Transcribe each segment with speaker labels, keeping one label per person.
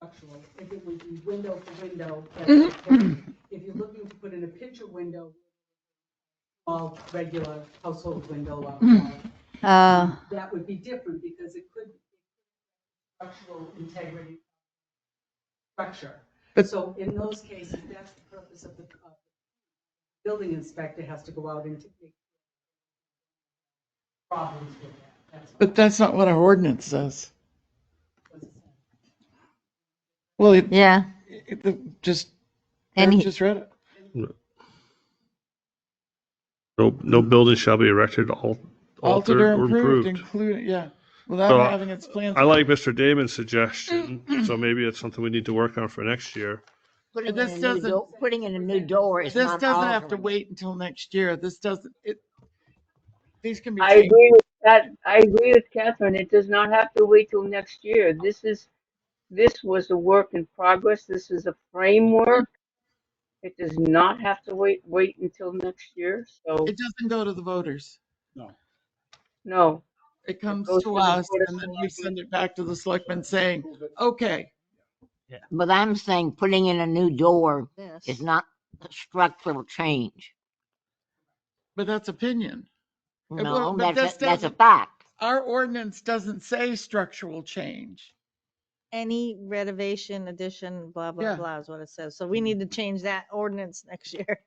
Speaker 1: structural, if it would be window for window, that's
Speaker 2: Mm-hmm.
Speaker 1: okay. if you're looking to put in a picture window, all regular household window, uh,
Speaker 2: Mm-hmm.
Speaker 3: Uh,
Speaker 1: that would be different because it could be structural integrity structure.
Speaker 4: But-
Speaker 1: So in those cases, that's the purpose of the uh, building inspector has to go out and take problems with that. That's what
Speaker 4: But that's not what our ordinance says.
Speaker 1: it was.
Speaker 4: Well, it,
Speaker 3: yeah,
Speaker 4: it- the- just,
Speaker 3: And
Speaker 4: Eric
Speaker 3: he-
Speaker 4: just read it.
Speaker 5: No, no building shall be erected, al-
Speaker 4: Mm-hmm. Altered or improved,
Speaker 5: improved.
Speaker 4: including, yeah, without
Speaker 5: So I-
Speaker 4: having its plans.
Speaker 5: I like Mr. Damon's suggestion,
Speaker 4: Mm-hmm.
Speaker 5: so maybe it's something we need to work on for next year.
Speaker 2: Putting
Speaker 4: this
Speaker 2: in a new,
Speaker 4: doesn't-
Speaker 2: do- putting in a new door is
Speaker 4: This
Speaker 2: not
Speaker 4: doesn't have to
Speaker 2: altering.
Speaker 4: wait until next year. This doesn't, it, these can be
Speaker 6: I
Speaker 4: changed.
Speaker 6: agree with that. I agree with Catherine. It does not have to wait till next year. This is, this was a work in progress. This is a framework. It does not have to wait, wait until next year. So,
Speaker 4: It doesn't go to the voters.
Speaker 6: no.
Speaker 4: It comes
Speaker 6: goes to
Speaker 4: to
Speaker 6: the
Speaker 4: us
Speaker 6: Board of
Speaker 4: and then we
Speaker 6: Selectmen.
Speaker 4: send it back to the selectmen saying, okay,
Speaker 2: But I'm saying putting in a new door is not a structural change.
Speaker 4: but that's opinion.
Speaker 7: Uh,
Speaker 4: It
Speaker 2: No,
Speaker 4: won't, but
Speaker 2: that's,
Speaker 4: this
Speaker 2: a- that's a
Speaker 4: doesn't-
Speaker 2: fact.
Speaker 4: Our ordinance doesn't say structural change.
Speaker 7: any renovation, addition, blah,
Speaker 4: Yeah.
Speaker 7: blah, blah is what it says. So we need to change that ordinance next year.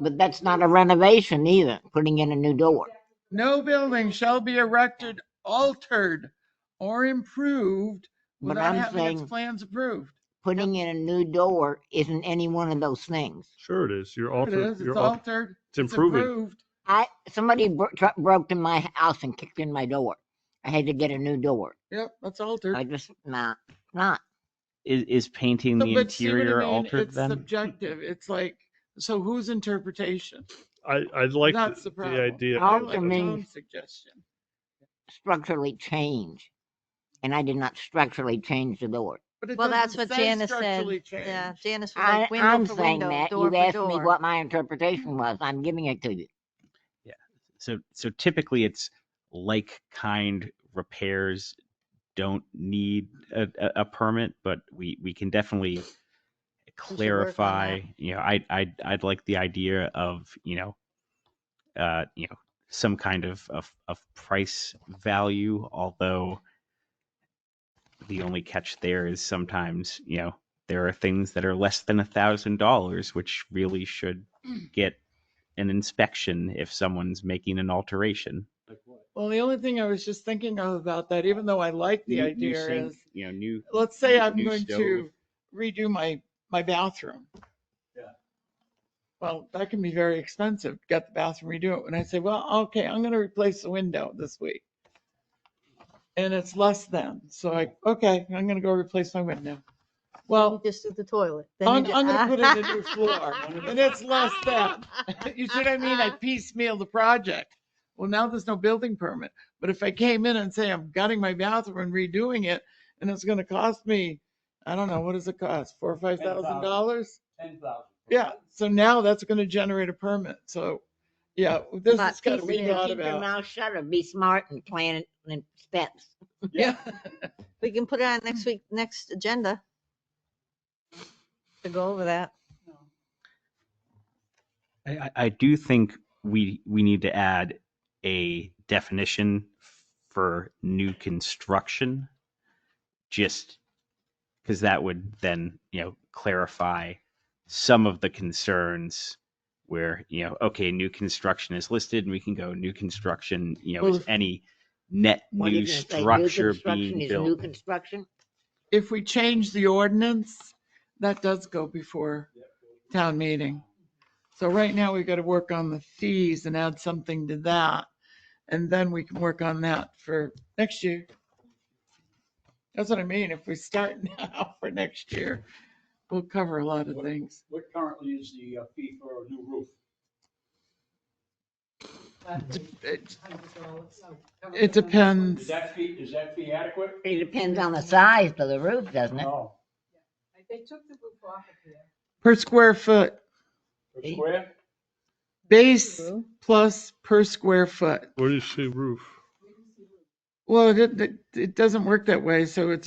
Speaker 2: But that's not a renovation either, putting in a new door.
Speaker 4: No building shall be erected, altered, or improved
Speaker 2: But
Speaker 4: without
Speaker 2: I'm
Speaker 4: having its
Speaker 2: saying-
Speaker 4: plans approved.
Speaker 2: Putting in a new door isn't any one of those things.
Speaker 5: Sure it is. You're
Speaker 4: It
Speaker 5: altering,
Speaker 4: is, it's
Speaker 5: you're al-
Speaker 4: altered, it's
Speaker 5: it's improving.
Speaker 4: approved.
Speaker 2: I, somebody bro- tr- broke in my house and kicked in my door. I had to get a new door.
Speaker 4: Yep, that's altered.
Speaker 2: I just, nah, not.
Speaker 8: Is, is painting
Speaker 4: So-
Speaker 8: the
Speaker 4: but see what I
Speaker 8: interior
Speaker 4: mean?
Speaker 8: altered
Speaker 4: It's
Speaker 8: then?
Speaker 4: Subjective, it's like, so whose interpretation?
Speaker 5: I, I like
Speaker 4: That's the
Speaker 5: the the
Speaker 4: problem.
Speaker 5: idea.
Speaker 4: I
Speaker 2: Alter
Speaker 4: like
Speaker 2: means-
Speaker 4: Tom's Suggestion.
Speaker 2: Structurally change. And I did not structurally change the door.
Speaker 4: But it
Speaker 7: Well, that's
Speaker 4: doesn't
Speaker 7: what
Speaker 4: say
Speaker 7: Janice said.
Speaker 4: structurally
Speaker 7: Yeah,
Speaker 4: changed.
Speaker 7: Janice was
Speaker 2: I,
Speaker 7: like
Speaker 2: I'm
Speaker 7: window for
Speaker 2: saying
Speaker 7: window,
Speaker 2: that,
Speaker 7: door
Speaker 2: you
Speaker 7: for
Speaker 2: asked me
Speaker 7: door.
Speaker 2: what my interpretation was. I'm giving it to you.
Speaker 8: So, so typically it's like kind repairs don't need a, a, a permit, but we, we can definitely clarify, you know, I, I, I'd like the idea of, you know, uh, you know, some kind of, of, of price value, although the only catch there is sometimes, you know, there are things that are less than a thousand dollars, which really should get an inspection if someone's making an alteration.
Speaker 4: Well, the only thing I was just thinking of about that, even though I like the
Speaker 8: New- new
Speaker 4: idea
Speaker 8: sink,
Speaker 4: is,
Speaker 8: You know, new.
Speaker 4: let's say
Speaker 8: new-
Speaker 4: I'm
Speaker 8: new
Speaker 4: going
Speaker 8: stove.
Speaker 4: to redo my, my bathroom.
Speaker 8: Yeah.
Speaker 4: Well, that can be very expensive, get the bathroom, redo it. When I say, well, okay, I'm gonna replace the window this week. And it's less than, so I, okay, I'm gonna go replace my window.
Speaker 7: You
Speaker 4: Well,
Speaker 7: just did the toilet. Then you
Speaker 4: I'm,
Speaker 7: ju-
Speaker 4: I'm gonna put in a new floor and it's less than. You see what I mean? I piecemeal the project. Well, now there's no building permit. But if I came in and say I'm gutting my bathroom and redoing it, and it's gonna cost me, I don't know, what does it cost? Four or five thousand dollars?
Speaker 9: ten thousand.
Speaker 4: Yeah, so now that's gonna generate a permit. So, yeah, this
Speaker 7: But
Speaker 4: has gotta be
Speaker 7: piecemeal,
Speaker 4: thought
Speaker 2: Keep your
Speaker 4: about.
Speaker 2: mouth shut or be smart and plan it in steps.
Speaker 4: Yeah,
Speaker 7: We can put it on next week, next agenda. To go over that.
Speaker 8: I, I- I do think we, we need to add a definition for new construction. Just because that would then, you know, clarify some of the concerns where, you know, okay, new construction is listed and we can go new construction, you know,
Speaker 4: Well,
Speaker 8: is
Speaker 4: if-
Speaker 8: any net
Speaker 2: What are you
Speaker 8: new
Speaker 2: gonna say, new
Speaker 8: structure
Speaker 2: construction
Speaker 8: being
Speaker 2: is new
Speaker 8: built.
Speaker 2: construction?
Speaker 4: if we change the ordinance, that does go before town meeting. So right now we gotta work on the fees and add something to that. And then we can work on that for next year. That's what I mean. If we start now for next year, we'll cover a lot of things.
Speaker 9: What currently is the uh, fee for a new roof?
Speaker 4: It- It
Speaker 1: It
Speaker 9: Is
Speaker 4: depends.
Speaker 9: that fee, is that fee adequate?
Speaker 2: It depends on the size of the roof, doesn't it?
Speaker 9: No,
Speaker 1: They took the roof off of here.
Speaker 4: Per square foot,
Speaker 9: per square?
Speaker 4: base plus per square foot.
Speaker 5: Where do you see roof?
Speaker 4: Well, it, it, it doesn't work that way, so it's a